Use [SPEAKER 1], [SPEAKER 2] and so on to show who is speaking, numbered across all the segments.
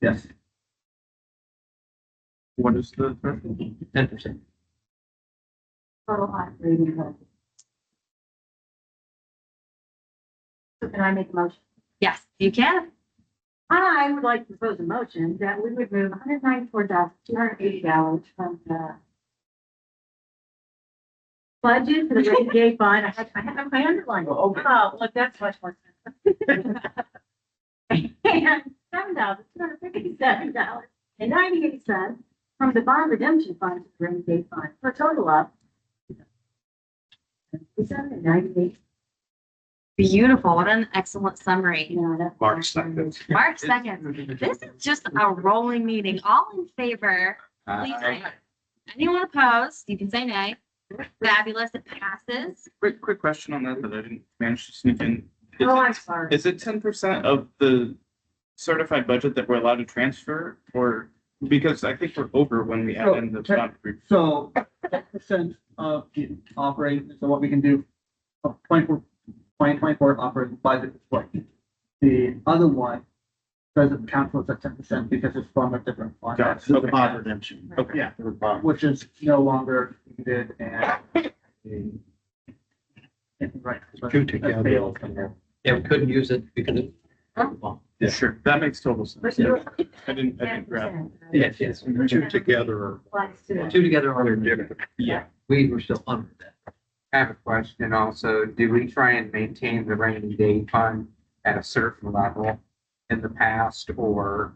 [SPEAKER 1] Yes. What is the threshold? Ten percent.
[SPEAKER 2] Total hot reading vote. So can I make a motion?
[SPEAKER 3] Yes, you can.
[SPEAKER 2] I would like to propose a motion that we would move hundred ninety-four thousand, two hundred eighty dollars from the budget to the rainy day fund. I had, I had my underline.
[SPEAKER 1] Oh, okay.
[SPEAKER 2] Oh, look, that's much more. sense. And seven thousand, two hundred fifty-seven dollars and ninety-eight cents from the bond redemption fund to the rainy day fund for a total of seven ninety-eight,
[SPEAKER 3] Beautiful. What an excellent
[SPEAKER 2] you
[SPEAKER 3] summary.
[SPEAKER 2] know, that's.
[SPEAKER 4] March second.
[SPEAKER 3] March second. This is just a rolling meeting. All in favor?
[SPEAKER 1] Uh,
[SPEAKER 3] Please, say aye. anyone opposed? You can say nay. Fabulous. It passes.
[SPEAKER 1] Quick, quick question on that that I didn't manage to sneak in. Is
[SPEAKER 2] Oh,
[SPEAKER 1] it-
[SPEAKER 2] I'm sorry.
[SPEAKER 1] Is it ten percent of the certified budget that we're allowed to transfer or, because I think we're over when we add in the
[SPEAKER 5] So,
[SPEAKER 1] bond group.
[SPEAKER 5] So ten percent of the operating, so what we can do, of twenty-four, twenty twenty-four operating budget is what the other one doesn't count towards that ten percent because it's from a different fund,
[SPEAKER 1] Got it.
[SPEAKER 6] The
[SPEAKER 1] Okay.
[SPEAKER 6] bond redemption.
[SPEAKER 1] Okay.
[SPEAKER 5] Yeah.
[SPEAKER 6] The bond.
[SPEAKER 5] which is no longer needed and the right. but-
[SPEAKER 6] Two together.
[SPEAKER 5] failed.
[SPEAKER 7] Yeah, we couldn't use it because it.
[SPEAKER 1] Yeah, sure. That makes total sense.
[SPEAKER 2] But you're-
[SPEAKER 1] I didn't, I didn't grab.
[SPEAKER 2] 10%.
[SPEAKER 7] Yes, yes.
[SPEAKER 6] Two together are
[SPEAKER 2] Applies to it.
[SPEAKER 7] Two together are different.
[SPEAKER 1] Yeah.
[SPEAKER 7] We were still under that.
[SPEAKER 8] I have a question also. Do we try and maintain the rainy day fund at a certain level in the past or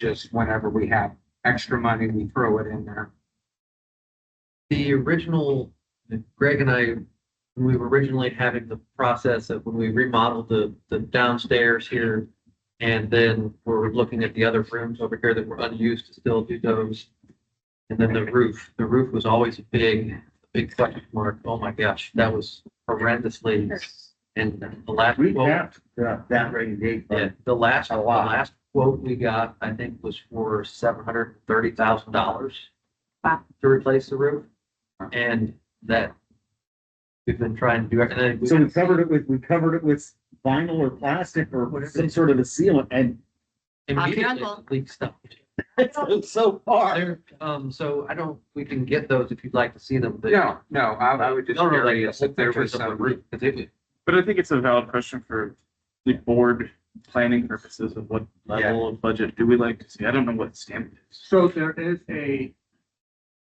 [SPEAKER 8] just whenever we have extra money, we throw it in there?
[SPEAKER 7] The original, Greg and I, when we were originally having the process of when we remodeled the, the downstairs here. And then we're looking at the other rooms over here that were unused to still do those. And then the roof, the roof was always a big, big question mark. Oh my gosh, that was horrendously. And the last.
[SPEAKER 6] We
[SPEAKER 7] quote-
[SPEAKER 6] have that rainy day
[SPEAKER 7] Yeah,
[SPEAKER 6] fund.
[SPEAKER 7] the last,
[SPEAKER 6] A
[SPEAKER 7] the
[SPEAKER 6] lot.
[SPEAKER 7] last quote we got, I think, was for seven hundred and thirty thousand dollars
[SPEAKER 3] Wow.
[SPEAKER 7] to replace the roof, and that we've been trying to do everything. we-
[SPEAKER 6] So we covered it with, we covered it with vinyl or plastic or some sort of a sealant and
[SPEAKER 3] Off
[SPEAKER 7] Immediately
[SPEAKER 3] your uncle.
[SPEAKER 7] leaked stuff.
[SPEAKER 6] it's so far.
[SPEAKER 7] There, um, so I don't, we can get those if you'd like to see them, but.
[SPEAKER 8] No, no, I, I would just
[SPEAKER 7] No, no, like
[SPEAKER 8] curious
[SPEAKER 7] the
[SPEAKER 8] if there was
[SPEAKER 7] pictures of the
[SPEAKER 8] some.
[SPEAKER 7] roof, 'cause it was-
[SPEAKER 1] But I think it's a valid question for the board planning purposes of what level of budget do we like to see? I don't know what stamp it is.
[SPEAKER 5] So there is a,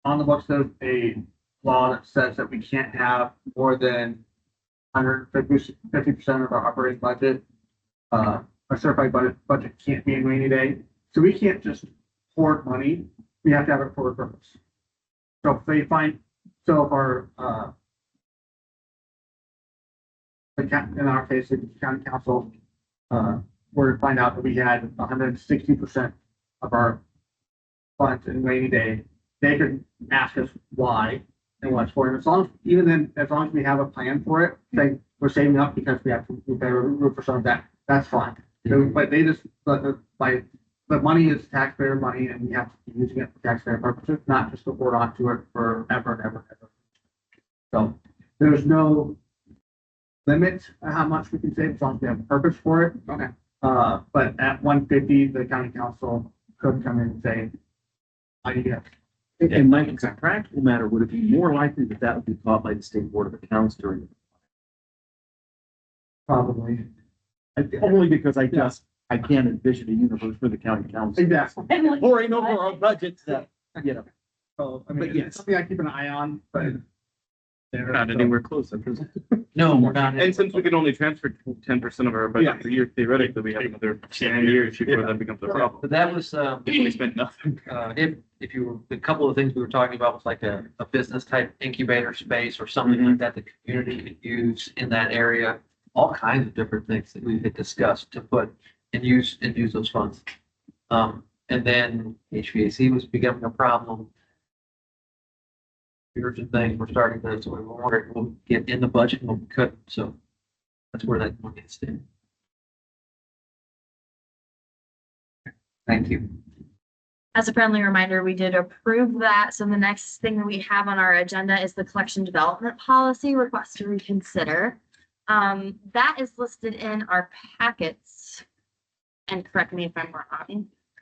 [SPEAKER 5] on the books, there's a law that says that we can't have more than hundred fifty percent of our operating budget. Uh, our certified budget, budget can't be in rainy day, so we can't just hoard money, we have to have it for a purpose. So if they find, so if our, uh, the coun- in our case, the county council, uh, were to find out that we had hundred and sixty percent of our funds and rainy day, they could ask us why and what's for it. As long, as even then, as long as we have a plan for it, like we're saving up because we have to repair a roof or something, that, that's fine. So, But they just, but the, like, but money is taxpayer money and we have to be using it for taxpayer purposes, not just to hoard onto it forever and ever and ever. So there's no limit on how much we can save as long as we have a purpose for it.
[SPEAKER 8] Okay.
[SPEAKER 5] Uh, but at one fifty, the county council could come in and say, I need to
[SPEAKER 6] And- And Mike, it's a practical matter, would it be more likely that that would be caught by the state board of accounts during?
[SPEAKER 5] probably.
[SPEAKER 6] Only because I just, I can't envision a universe for the county council.
[SPEAKER 5] Exactly.
[SPEAKER 6] Pouring over our budgets that, you know.
[SPEAKER 5] So, I
[SPEAKER 6] But
[SPEAKER 5] mean,
[SPEAKER 6] yes.
[SPEAKER 5] it's something I keep an eye on, but.
[SPEAKER 1] We're Not anywhere close. I'm presuming.
[SPEAKER 7] No, we're not.
[SPEAKER 1] And since we can only transfer ten percent of our budget per year, theoretically, we have another ten years before that becomes a problem.
[SPEAKER 7] But that was, um.
[SPEAKER 1] If we spent nothing.
[SPEAKER 7] uh, if, if you, were a couple of things we were talking about was like a, a business type incubator space or something
[SPEAKER 8] Mm-hmm.
[SPEAKER 7] like that, the community could use in that area. All kinds of different things that we had discussed to put and use, and use those funds. Um, and then HVAC was becoming a problem. Urgent things were starting to, so we were wondering, we'll get in the budget, and we couldn't, so that's where that money is in.
[SPEAKER 8] Thank you.
[SPEAKER 3] As a friendly reminder, we did approve that. So the next thing that we have on our agenda is the collection development policy request to reconsider. Um, that is listed in our packets. And correct me if I'm wrong.